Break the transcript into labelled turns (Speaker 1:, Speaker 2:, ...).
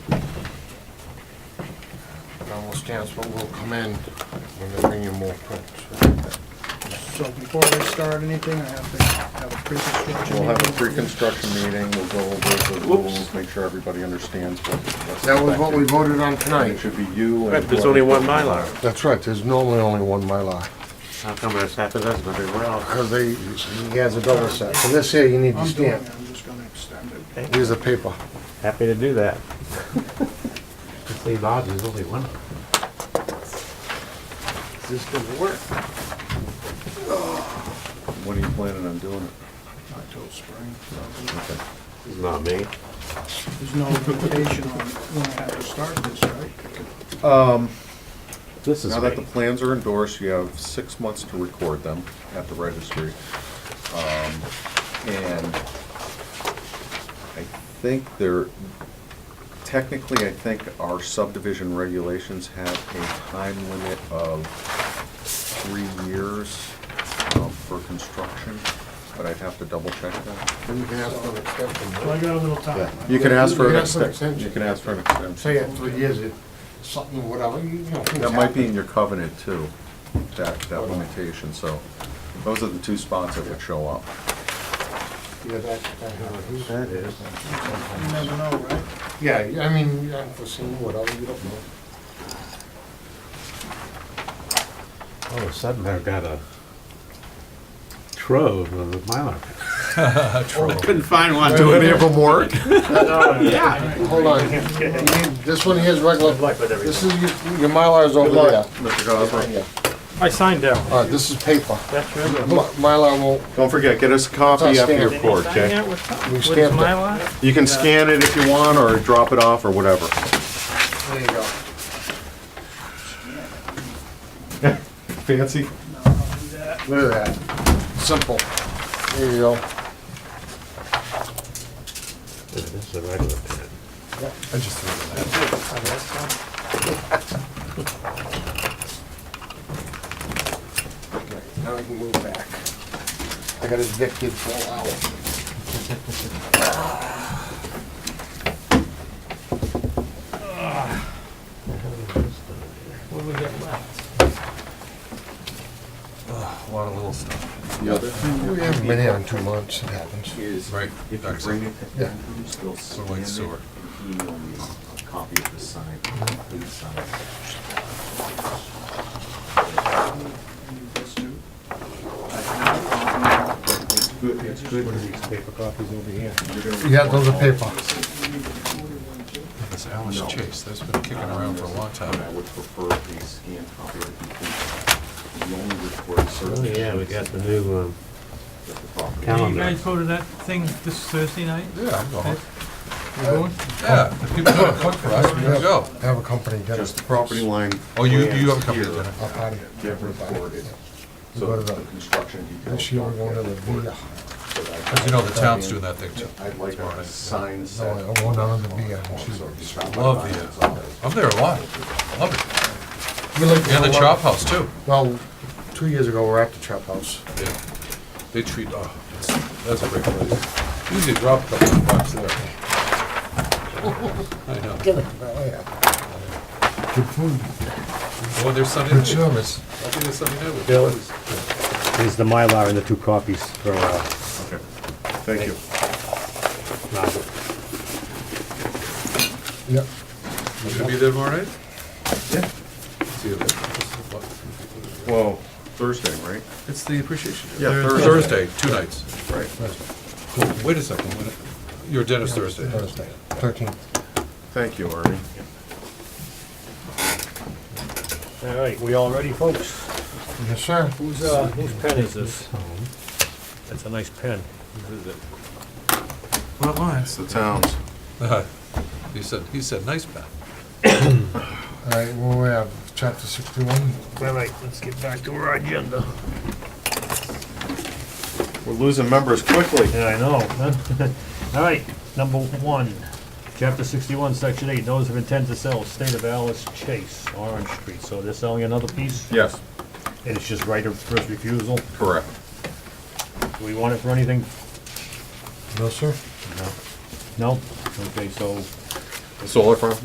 Speaker 1: almost stands, but we'll come in when they bring you more prints.
Speaker 2: So before we start anything, I have to have a pre-construction.
Speaker 3: We'll have a
Speaker 2: meeting.
Speaker 3: pre-construction meeting, we'll go over the rules, make sure everybody understands what. what's
Speaker 1: That was what we
Speaker 3: expected.
Speaker 1: voted on
Speaker 3: And It
Speaker 1: tonight.
Speaker 3: should be you and.
Speaker 4: Right, there's only one Mylar.
Speaker 1: That's right, there's normally only one Mylar,
Speaker 4: How come this happened, that's not everywhere else?
Speaker 1: because they, he has a double set. So this here, you need to
Speaker 2: I'm doing it,
Speaker 1: stamp.
Speaker 2: I'm just gonna extend it.
Speaker 1: Here's the paper.
Speaker 4: Happy to do that. See, Bob, there's only one. Is this gonna work?
Speaker 3: When are you planning on doing it?
Speaker 2: Not till spring. probably.
Speaker 3: Okay.
Speaker 4: It's not me.
Speaker 2: There's no limitation on when I have to start this, right?
Speaker 4: This
Speaker 3: Now that the plans are endorsed, you have six months to record them at the registry. Um, And I think there, technically, I think our subdivision regulations have a time limit of three years um, for construction, but I'd have to double check that.
Speaker 1: Then you can ask for an extension.
Speaker 2: So I got a little time.
Speaker 3: You can ask for
Speaker 1: You can
Speaker 3: an
Speaker 1: ask for an
Speaker 3: extension, you
Speaker 1: extension.
Speaker 3: can ask for an extension.
Speaker 1: Say it three years, it- something, whatever, you know. things
Speaker 3: That might be in
Speaker 1: happen.
Speaker 3: your covenant too, that, that limitation, so those are the two spots that would show up.
Speaker 1: Yeah, that, that, uh,
Speaker 4: That is.
Speaker 2: You never know, right?
Speaker 1: yeah, I mean, unforeseen, whatever, you don't know.
Speaker 4: All of a sudden, I've got a trove of the Mylar. Couldn't find one.
Speaker 1: Do any of them work?
Speaker 4: Oh, Yeah.
Speaker 1: Hold on. You need- This one here's regular. This is, your your Mylar's over there.
Speaker 3: Mr. Gosler.
Speaker 5: I signed that
Speaker 1: All
Speaker 5: one.
Speaker 1: right, this is paper.
Speaker 5: That's your
Speaker 1: My- Mylar won't,
Speaker 3: Don't forget, get us a copy after your
Speaker 1: Outstanding.
Speaker 3: court,
Speaker 5: Sign
Speaker 3: okay?
Speaker 5: that with,
Speaker 1: We
Speaker 5: with
Speaker 1: stamped it.
Speaker 5: my lot?
Speaker 3: You can scan it if you want, or drop it off, or whatever.
Speaker 1: there you go.
Speaker 3: Fancy?
Speaker 1: Look at that. Simple. There you go.
Speaker 4: This is a regular pen.
Speaker 1: I just threw that. Okay, Now we can move back. I got his Vic kid full out.
Speaker 5: What do we got left?
Speaker 6: A lot of little stuff.
Speaker 3: The other thing
Speaker 1: We haven't been here in two months, it happens.
Speaker 3: is,
Speaker 6: Right,
Speaker 3: if you
Speaker 6: that's
Speaker 3: bring it,
Speaker 1: Yeah.
Speaker 3: you still
Speaker 6: So
Speaker 3: scan
Speaker 6: like
Speaker 3: it,
Speaker 6: sewer.
Speaker 3: he only has a copy of the sign, please sign it.
Speaker 2: I need this too.
Speaker 3: It's good, it's good.
Speaker 4: What are these paper copies over here?
Speaker 3: You're gonna
Speaker 1: Yeah, those are paper.
Speaker 6: This Alice Chase, that's been kicking around for a long
Speaker 3: And Um, I
Speaker 6: time.
Speaker 3: would prefer a scanned copy of the complete. You only record
Speaker 4: Oh,
Speaker 3: certain.
Speaker 4: yeah, we got the new, um,
Speaker 3: of the property.
Speaker 5: Can you
Speaker 4: Calendar.
Speaker 5: guys go to that thing this Thursday night?
Speaker 6: Yeah, I'm going.
Speaker 5: You going?
Speaker 6: Yeah, if people don't cook for us, we can go.
Speaker 1: Have a company get
Speaker 3: Just the property line.
Speaker 6: Oh, you,
Speaker 3: plans
Speaker 6: you have a copy
Speaker 3: here
Speaker 6: of the agenda?
Speaker 1: up out of here.
Speaker 3: Get recorded.
Speaker 1: We go
Speaker 3: So
Speaker 1: to
Speaker 3: the
Speaker 1: the-
Speaker 3: construction details.
Speaker 1: This year we're going to the Villa.
Speaker 6: Because you know, the town's doing that thing too.
Speaker 3: I'd like
Speaker 6: tomorrow
Speaker 3: a
Speaker 6: night.
Speaker 3: sign
Speaker 1: No,
Speaker 3: set.
Speaker 1: I'm going down to the
Speaker 3: Oh,
Speaker 1: Villa. and she's-
Speaker 6: Love the, uh, I'm there a lot. Love
Speaker 1: We like
Speaker 6: it.
Speaker 1: to
Speaker 6: Yeah, the
Speaker 1: go
Speaker 6: chop
Speaker 1: up-
Speaker 6: house too.
Speaker 1: Well, two years ago, we we're at the chop house.
Speaker 6: Yeah. They treat, oh, that's- that's a great place. Usually drop a couple of bucks there. I know.
Speaker 1: Oh, yeah. Good food.
Speaker 6: Oh, there's something. Good service. I think there's something new.
Speaker 4: Bill, here's the Mylar and the two copies for, uh,
Speaker 3: Okay. Thank you.
Speaker 4: Robert.
Speaker 1: Yep.
Speaker 6: You gonna be there tomorrow night?
Speaker 3: Yeah.
Speaker 6: See you there.
Speaker 3: Well, Thursday, right?
Speaker 6: It's the appreciation. day.
Speaker 3: Yeah,
Speaker 6: Thursday, two nights.
Speaker 3: Right.
Speaker 6: Cool. Wait a second, wait a- your dinner's Thursday.
Speaker 1: Thursday, thirteenth.
Speaker 3: Thank you, Artie.
Speaker 5: All right, we all ready, folks?
Speaker 1: Yes, sir.
Speaker 5: Whose, uh, whose pen is this? That's a nice pen. This is it.
Speaker 6: Well,
Speaker 3: It's the town's.
Speaker 6: He said, he said, nice, Pat.
Speaker 1: All right, well, we have chapter sixty-one.
Speaker 5: All right, let's get back to our agenda.
Speaker 3: We're losing members quickly.
Speaker 5: Yeah, I know. huh? All right, number one, chapter sixty-one, section eight, notice of intent to sell, state of Alice Chase, Orange Street. So they're selling another piece,
Speaker 3: Yes,
Speaker 5: and it's just right of first refusal.
Speaker 3: correct.
Speaker 5: Do we want it for anything?
Speaker 1: No, sir.
Speaker 5: No? Okay, so
Speaker 3: Solar farm?